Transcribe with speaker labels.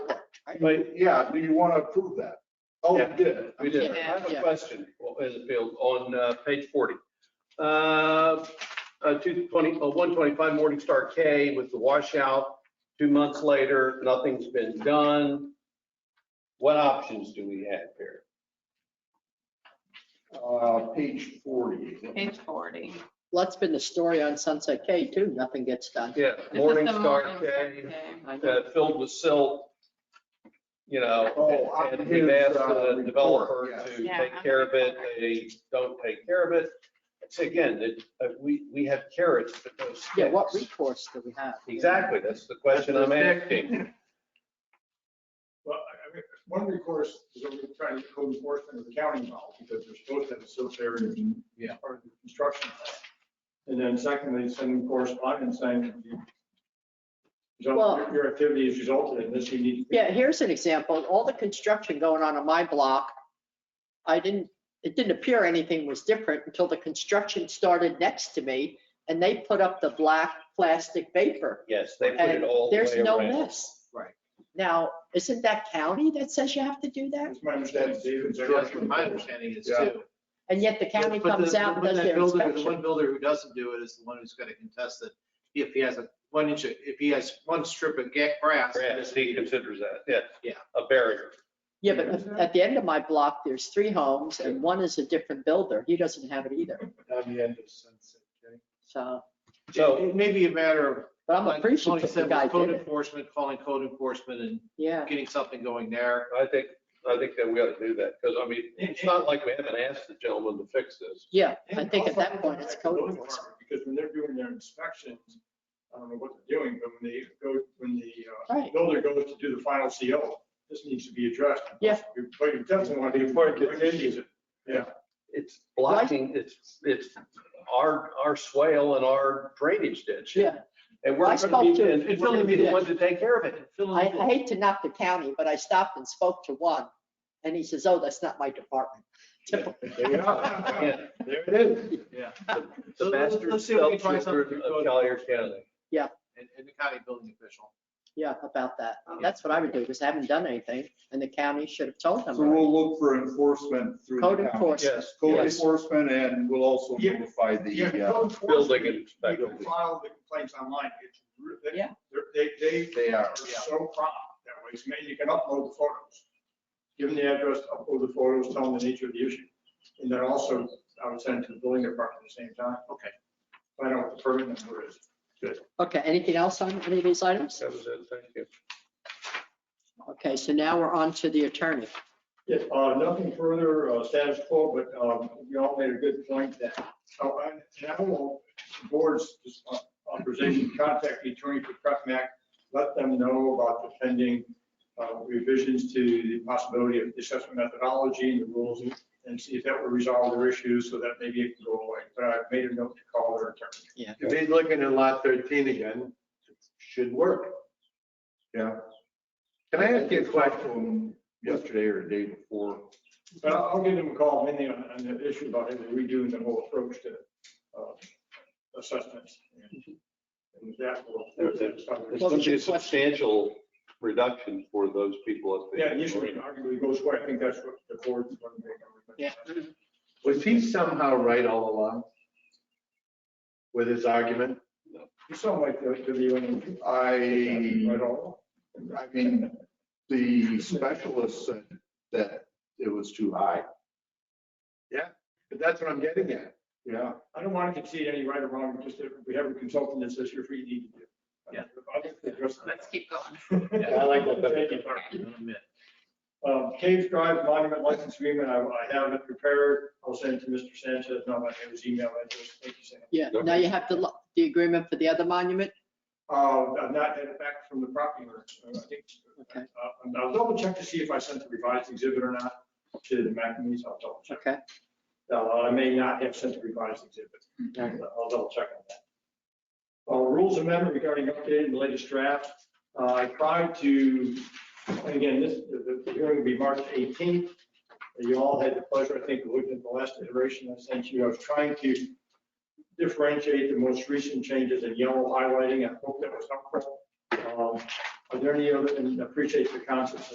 Speaker 1: Right.
Speaker 2: Yeah, do you want to approve that? Oh,
Speaker 1: Yeah.
Speaker 2: we did.
Speaker 1: We did. I
Speaker 3: Yeah,
Speaker 1: have a
Speaker 3: yeah.
Speaker 1: question, well, as a field, on uh, page 40. Uh, uh, 220, uh, 125 Morningstar K with the washout, two months later, nothing's been done. What options do we have here?
Speaker 2: Uh, page 40.
Speaker 4: Page 40.
Speaker 3: Well, that's been the story on Sunset K too. Nothing gets done.
Speaker 1: Yeah,
Speaker 4: This is the
Speaker 1: Morningstar K.
Speaker 4: K.
Speaker 3: I know.
Speaker 1: uh, filled with silt, you
Speaker 2: Oh,
Speaker 1: know,
Speaker 2: on
Speaker 1: and we've asked
Speaker 2: his, uh,
Speaker 1: the developer
Speaker 2: report,
Speaker 1: to
Speaker 4: yeah.
Speaker 1: take care of it, they don't take care of it. So again, that, uh, we, we have carrots, but no sticks.
Speaker 3: Yeah, what recourse do we have?
Speaker 1: Exactly, that's the question I'm asking.
Speaker 5: Well, I mean, one recourse is that we're trying to go enforcement of the county model because they're supposed to have a search area in
Speaker 2: Yeah.
Speaker 5: part of the construction plan. And then secondly, sending correspondence saying you-
Speaker 3: Well-
Speaker 5: your activity has resulted in this, you need. to-
Speaker 3: Yeah, here's an example. All the construction going on on my block, I didn't, it didn't appear anything was different until the construction started next to me and they put up the black plastic vapor.
Speaker 1: Yes, they put it
Speaker 3: And
Speaker 1: all the way
Speaker 3: There's no
Speaker 1: around.
Speaker 3: mess.
Speaker 5: Right.
Speaker 3: Now, isn't that county that says you have to do that?
Speaker 5: It's my understanding, Steve.
Speaker 6: That's what my understanding is
Speaker 2: Yeah.
Speaker 6: too.
Speaker 3: And yet the county
Speaker 6: But the-
Speaker 3: comes out and
Speaker 6: when
Speaker 3: does
Speaker 6: that
Speaker 3: their
Speaker 6: builder- The
Speaker 3: inspection.
Speaker 6: one builder who doesn't do it is the one who's gonna contest it. If he has a one inch, of- if he has one strip of ga- grass.
Speaker 1: Yes, he considers that, yeah.
Speaker 6: Yeah.
Speaker 1: A barrier.
Speaker 3: Yeah, but at- at the end of my block, there's three homes and one is a different builder. He doesn't have it either.
Speaker 2: On the end of Sunset
Speaker 3: So,
Speaker 1: So-
Speaker 6: It it may be a matter of.
Speaker 3: but I'm
Speaker 6: like Tony
Speaker 3: appreciative
Speaker 6: said,
Speaker 3: the
Speaker 6: with
Speaker 3: guy did
Speaker 6: Code
Speaker 3: it.
Speaker 6: enforcement, calling code enforcement and
Speaker 3: Yeah.
Speaker 6: getting something going there.
Speaker 1: I think, I think that we ought to do that, because I mean, it's not like we haven't asked the gentleman to fix this.
Speaker 3: Yeah,
Speaker 5: And
Speaker 3: I think at
Speaker 5: also,
Speaker 3: that point, it's
Speaker 5: the building
Speaker 3: code enforcement.
Speaker 5: department, Because when they're doing their inspections, I don't know what they're doing, but when they go, when the uh,
Speaker 3: Right.
Speaker 5: builder goes to do the final CO, this needs to be addressed.
Speaker 3: Yeah.
Speaker 5: But you definitely want to.
Speaker 2: Before it gets issued.
Speaker 5: Yeah.
Speaker 1: It's blocking, it's, it's our, our swale and our drainage ditch.
Speaker 3: Yeah.
Speaker 1: And we're
Speaker 3: I
Speaker 1: gonna be,
Speaker 3: spoke to-
Speaker 1: and it's gonna be the one to take care of it.
Speaker 6: Fill
Speaker 3: I
Speaker 6: in the
Speaker 3: I
Speaker 6: blank.
Speaker 3: hate to knock the county, but I stopped and spoke to one and he says, oh, that's not my department. Typical.
Speaker 2: K.
Speaker 1: Yeah,
Speaker 2: There it is.
Speaker 1: The
Speaker 6: So let's-
Speaker 1: master
Speaker 6: let's see if we can try
Speaker 1: self-children
Speaker 6: something through
Speaker 1: of
Speaker 6: code
Speaker 1: Collier
Speaker 6: enforcement.
Speaker 1: County.
Speaker 6: And, and the county building official.
Speaker 3: Yeah, about that. That's what I would do because I haven't done anything and the county should have told them.
Speaker 2: So
Speaker 3: already.
Speaker 2: we'll look for enforcement through
Speaker 3: Code
Speaker 2: the county.
Speaker 3: enforcement.
Speaker 1: Yes,
Speaker 2: Code
Speaker 3: Yes.
Speaker 2: enforcement and we'll also
Speaker 5: Yeah.
Speaker 2: notify
Speaker 5: Yeah,
Speaker 2: the, uh,
Speaker 5: code
Speaker 1: building
Speaker 5: enforcement, you
Speaker 1: inspector.
Speaker 5: can file the complaints online. It's re- they-
Speaker 3: Yeah.
Speaker 5: they're- They, they
Speaker 2: they are.
Speaker 5: are so prompt that way. So maybe you can upload the photos. Give them the address, upload the photos, tell them the nature of the issue. And then also, I would send it to the building department at the same time.
Speaker 6: Okay.
Speaker 5: Find out what the permit number is.
Speaker 3: Okay, anything else on any of these items?
Speaker 1: That was it, thank you.
Speaker 3: Okay, so now we're on to the attorney.
Speaker 5: Yes, uh, nothing further, uh, status quo, but, um, you all made a good point that, oh, and and I will, boards, just uh, authorization, contact the attorney for Prepmac, let them know about the pending, uh, revisions to the possibility of assessment methodology and the rules, and see if that will resolve their issues, so that maybe it can go away, but I made a note to call their attorney.
Speaker 6: If he's looking at lot thirteen again, should work.
Speaker 2: Yeah. Can I ask you a question yesterday or the day before?
Speaker 5: But I'll, I'll give them a call, mainly on, on the issue about redoing the whole approach to, uh, assessments. And with that, we'll.
Speaker 1: There's There's
Speaker 3: Well,
Speaker 1: gonna
Speaker 3: it's
Speaker 1: be a
Speaker 3: just-
Speaker 1: substantial reduction for those people up there.
Speaker 5: Yeah, usually arguably goes away. I think that's what the board is going to make.
Speaker 3: Yeah.
Speaker 7: Was he somehow right all along with his argument?
Speaker 5: You sound like the, the viewing.
Speaker 7: Mm-hmm.
Speaker 2: I,
Speaker 5: Right on.
Speaker 2: I mean, the specialist said that it was too high.
Speaker 7: But that's what I'm getting at.
Speaker 2: Yeah.
Speaker 5: I don't want to concede any right or wrong, just that we have a consultant that says here's what you need to do.
Speaker 6: Yeah.
Speaker 4: Let's keep going.
Speaker 5: I like that.
Speaker 6: Admit.
Speaker 5: Um, Cave Drive Monument License Agreement, I, I have it prepared. I'll send it to Mr. Sanchez. No, I have his email address. Thank you, Sam.
Speaker 3: Yeah, now you have the, lo- the agreement for the other monument?
Speaker 5: Uh, I've not had it back from the property owner. so I think-
Speaker 3: Okay.
Speaker 5: Uh, and I'll double check to see if I sent the revised exhibit or not to the McNamee. I'll double check.
Speaker 3: Okay.
Speaker 5: Uh, I may not have sent the revised exhibit.
Speaker 3: Okay.
Speaker 5: I'll double check on that. Uh, Rules amendment regarding updated and latest draft. Uh, I tried to, and again, this, the the hearing will be March 18th. You all had the pleasure, I think, of looking at the last iteration I sent you. I was trying to differentiate the most recent changes in yellow highlighting. I hope that was helpful. Um, Are there any other, and I appreciate the concepts